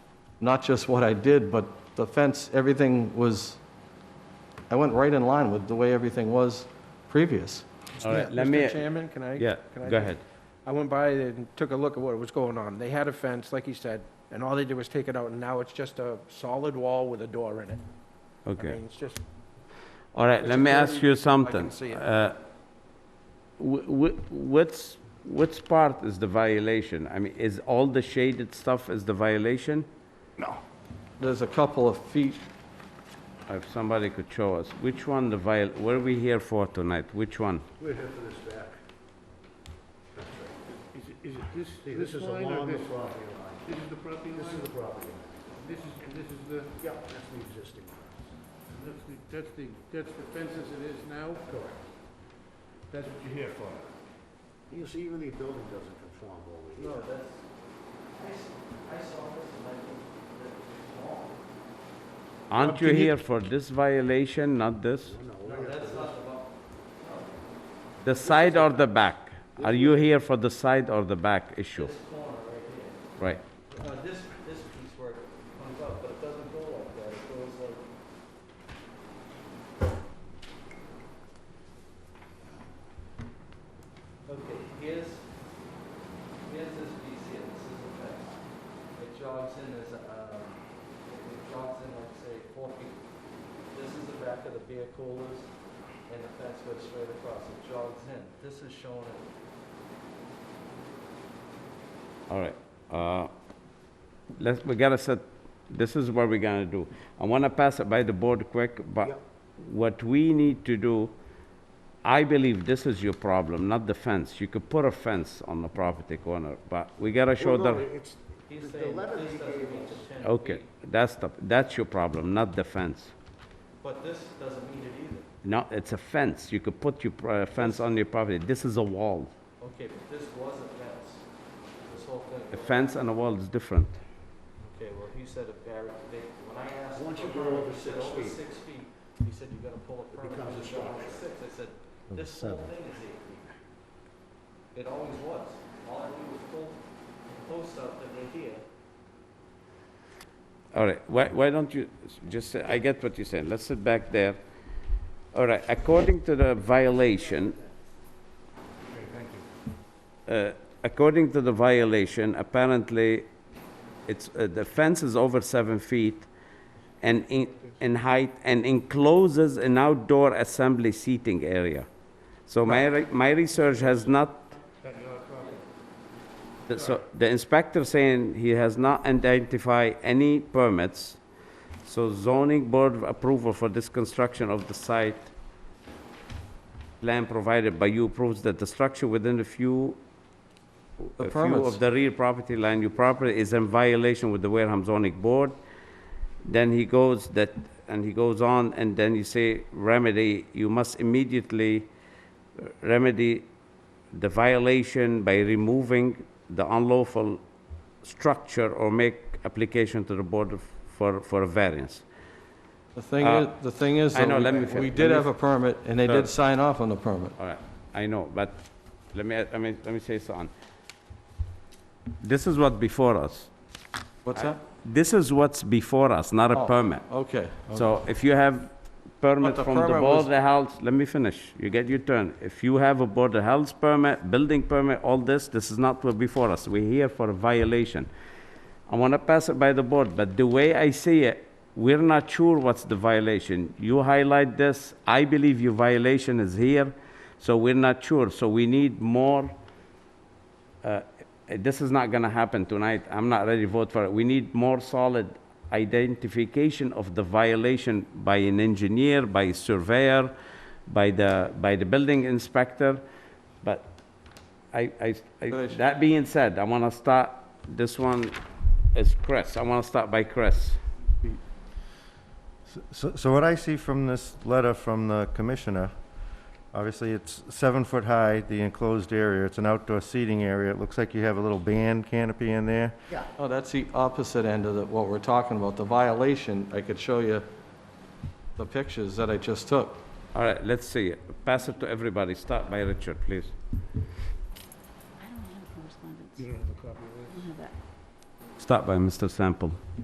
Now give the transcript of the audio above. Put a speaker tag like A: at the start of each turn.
A: not just what I did, but the fence, everything was, I went right in line with the way everything was previous.
B: All right, let me,
C: Mr. Chairman, can I?
B: yeah,
C: can I
B: go
C: just-
B: ahead.
C: I went by and took a look at what was going on. They had a fence, like you said, and all they did was take it out, and now it's just a solid wall with a door in it. I
B: Okay.
C: mean, it's just,
B: All right, let
C: Mr.
B: me ask
C: Chairman,
B: you something.
C: see it.
B: Uh, wh- wh- What's, which part is the violation? I mean, is all the shaded stuff is the violation?
A: There's a couple of feet,
B: If somebody could show us, which one the viol, what are we here for tonight? Which one?
D: We're here for this back.
E: Is it, is it
D: See,
E: this,
D: this is
E: this line or
D: along the
E: this?
D: property line.
E: This is the property line?
D: This is the property line.
E: This is, and this is the,
D: Yeah, that's the existing. one.
E: that's the, that's the, that's the fence as it is now?
D: Correct.
E: That's what you're here for?
D: You see, even the building doesn't conform over here.
B: Aren't you here for this violation, not this?
D: No, we're here for
B: The side or the back? Are you here for the side or the back issue? Right.
A: this, this piece where it comes up, but it doesn't go like that, it goes like. Okay, here's, here's this piece here, this is the fence. It jogs in as, um, it jogs in like, say, four feet. This is the back of the beer coolers, and the fence goes straight across, it jogs in. This is shown at
B: All right, uh, let's, we gotta set, this is what we're gonna do. I wanna pass it by the board quick,
D: Yeah.
B: but what we need to do, I believe this is your problem, not the fence. You could put a fence on the property corner, but we gotta show
D: Well, no,
B: the,
D: It's,
A: He's
D: The
A: saying
D: letter
A: this
D: he
A: doesn't
D: gave
A: meet
D: us.
A: the 10
B: okay,
A: feet,
B: that's the, that's your problem, not the fence.
A: But this doesn't meet it either.
B: No, it's a fence. You could put your pro- fence on your property. This is a wall.
A: Okay, but this was a fence, this whole thing.
B: A
A: was-
B: fence and a wall is different.
A: Okay, well, he said a barrier, they, when I asked.
D: Once
A: him
D: you
A: for
D: go
A: permit,
D: over
A: he
D: six
A: said over
D: feet.
A: six feet, he said you gotta pull a permit.
D: becomes a
A: when you go over
D: structure.
A: Six, I said, this whole thing is eight feet. It always was, all I did was pull the posts out that were here.
B: All right, why, why don't you, s- just, say- I get what you're saying, let's sit back there. All right, according to the violation,
E: Okay, thank you.
B: uh, according to the violation, apparently, it's, uh, the fence is over seven feet and in, in height and encloses an outdoor assembly seating area. So my, re- my research has not,
E: That your property?
B: the- so the inspector saying he has not identified any permits, so zoning board approval for this construction of the site plan provided by you proves that the structure within a few,
A: The
B: a few
A: permits.
B: of the rear property line, your property is in violation with the Wareham zoning board. Then he goes that, and he goes on, and then you say remedy, you must immediately remedy the violation by removing the unlawful structure or make application to the board of- for, for a variance.
A: The thing
B: Uh,
A: is, the thing is,
B: I know, let me
A: though,
B: fin-
A: we
B: let
A: did
B: me
A: have a permit, and they
B: Sure.
A: did sign off on the permit.
B: All right, I know, but let me, let me, let me say something. This is what before us.
A: What's that?
B: This is what's before us, not a
A: Oh.
B: permit.
A: Okay.
B: So if you have permit
A: But the
B: from the
A: permit
B: Board
A: was-
B: of Health, let me finish, you get your turn. If you have a Board of Health permit, building permit, all this, this is not what before us. We're here for a violation. I wanna pass it by the board, but the way I see it, we're not sure what's the violation. You highlight this, I believe your violation is here, so we're not sure, so we need more. uh, This is not gonna happen tonight, I'm not ready to vote for it. We need more solid identification of the violation by an engineer, by a surveyor, by the, by the building inspector, but I, I, I-
A: Finish.
B: that being said, I want to start, this one is Chris. I want to start by Chris.
F: So, so what I see from this letter from the commissioner, obviously it's seven foot high, the enclosed area, it's an outdoor seating area. It looks like you have a little band canopy in there.
A: Oh, that's the opposite end of the- what we're talking about. The violation, I could show you the pictures that I just took.
B: All right, let's see it. Pass it to everybody. Start by Richard, please.
G: I don't have correspondence.
E: You don't have a copy of this?
G: I don't have that.
B: Start by Mr. Sample.